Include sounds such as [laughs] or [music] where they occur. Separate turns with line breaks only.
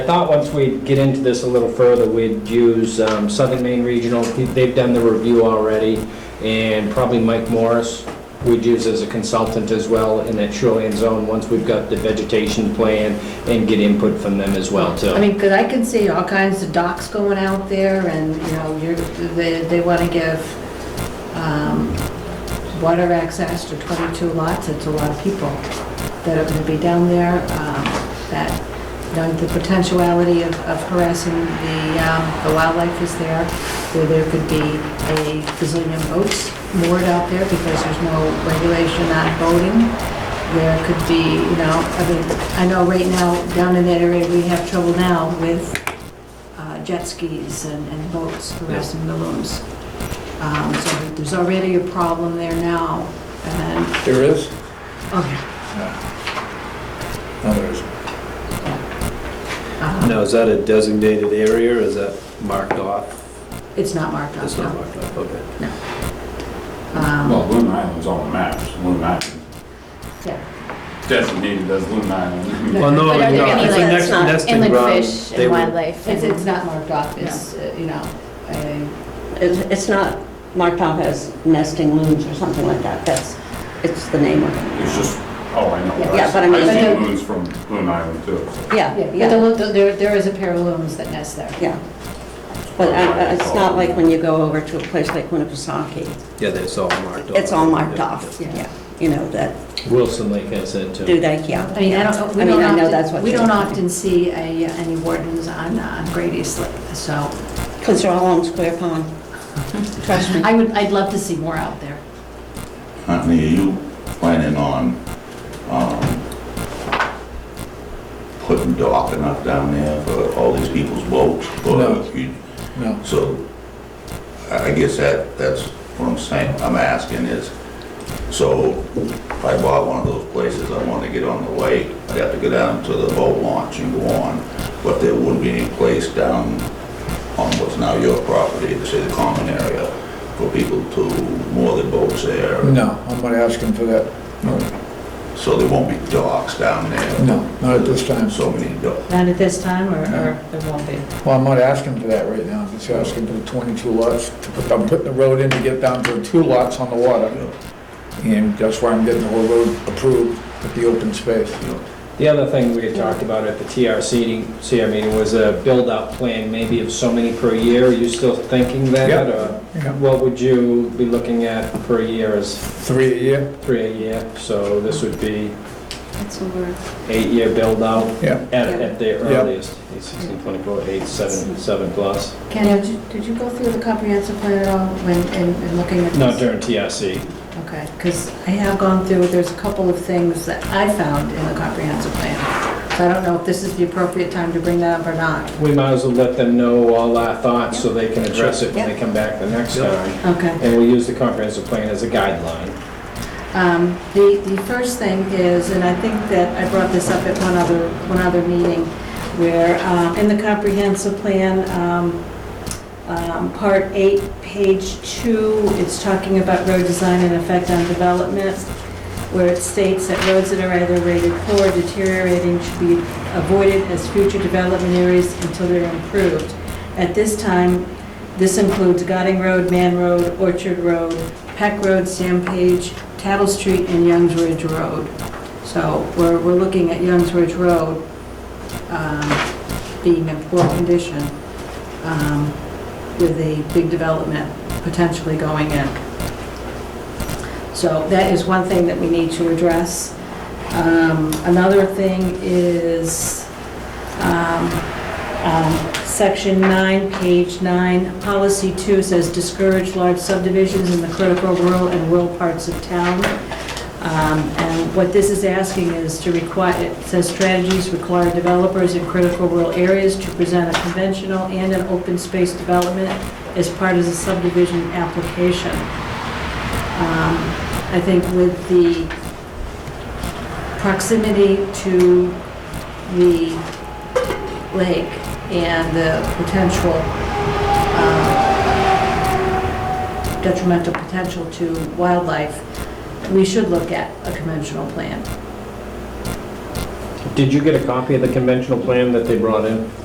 thought once we get into this a little further, we'd use um, Southern Maine Regional, they've done the review already, and probably Mike Morris, we'd use as a consultant as well in that shoreline zone, once we've got the vegetation plan, and get input from them as well,
I
too.
mean, because I can see all kinds of docks going out there, and, you know, you're, they, they want to give um, water access to 22 lots, it's a lot of people that are going to be down there, um, that, you know, the potentiality of of harassing the, um, the wildlife is there, where there could be a gazillion boats moored out there because there's no regulation on boating there could be, you know, I mean, I know right now, down in that area, we have trouble now with uh, jet skis and and boats harassing balloons. Um, So there's already a problem there now, and,
There is?
oh, yeah,
No, there isn't.
uh,
Now, is that a designated area, or is that marked off?
it's not marked
It's
off
not
now.
marked off, okay.
Um,
Well, Loon Island's on the maps, Loon Island.
Yeah.
Designated as Loon
[laughs]
Island.
Well, no,
But are there
no,
any
it's a
that's not
nesting
inland
ground.
fish
They
and
would-
wildlife?
It's,
and-
it's not marked off, it's, uh, you know, a-
It's it's not marked off as nesting loons or something like that. That's, it's the name of it.
It's just, oh, I know.
Yeah, but I mean-
I've
But
seen
no-
loons from Loon Island too. so.
Yeah,
yeah, but the
yeah,
lo- there, there is a pair of loons that nest there.
yeah. But uh, uh, it's not like when you go over to a place like Winnipesaukee.
Yeah, that's all marked off.
It's all marked off,
Yeah.
yeah. You know, that,
Wilson Lake has that, too.
do that, yeah.
I mean, I don't, we
I mean,
don't
I know that's what
often, we
you're
don't
talking.
often see a- any wardens on, on Great East Lake, so
Because they're all on Square
[laughs]
Pond. Trust me.
I would, I'd love to see more out there.
Huntley, are you planning on, um, putting docking up down there for all these people's boats? or
No.
you-
No.
So, I I guess that, that's what I'm saying, I'm asking is, so if I bought one of those places, I want to get on the lake, I'd have to go down to the boat launch and go on, but there wouldn't be any place down on what's now your property, to say the common area, for people to moor their boats there.
No, I'm not asking for that. No,
So there won't be docks down there?
No, not at this time.
So many docks.
Not at this time, or, or there won't be?
Well, I'm not asking for that right now. I'm just asking for the 22 lots. to put- I'm putting the road in to get down to two lots on the water. And that's why I'm getting the whole road approved with the open space.
The other thing we had talked about at the TRC, CR meeting was a build-out plan, maybe of so many per year. Are you still thinking that?
Yep.
or
Yeah.
What would you be looking at per year as
Three a year?
three a year? So this would be
That's over.
eight-year build-out
Yeah.
at, at the
Yeah.
earliest, eight, sixteen, twenty-four, eight, seven, seven plus.
Ken, did you, did you go through the comprehensive plan at all when, in, in looking at this?
Not during TRC.
Okay, because I have gone through, there's a couple of things that I found in the comprehensive plan. So I don't know if this is the appropriate time to bring that up or not.
We might as well let them know all our thoughts so they can address it when they
Yeah.
come back the next time.
Okay.
And we'll use the comprehensive plan as a guideline.
Um, The, the first thing is, and I think that I brought this up at one other, one other meeting, where uh, in the comprehensive plan, um, um, part eight, page two, it's talking about road design and effect on development, where it states that roads that are either rated poor or deteriorating should be avoided as future development areas until they're improved. At this time, this includes Godding Road, Man Road, Orchard Road, Peck Road, Stampage, Tattle Street, and Youngs Ridge Road. So we're, we're looking at Youngs Ridge Road um, being in poor condition um, with a big development potentially going in. So that is one thing that we need to address. Um, Another thing is um, um, Section 9, page 9, Policy 2 says discourage large subdivisions in the critical rural and rural parts of town. Um, And what this is asking is to require, it says strategies require developers in critical rural areas to present a conventional and an open space development as part of the subdivision application. Um, I think with the proximity to the lake and the potential um, detrimental potential to wildlife, we should look at a conventional plan.
Did you get a copy of the conventional plan that they brought in?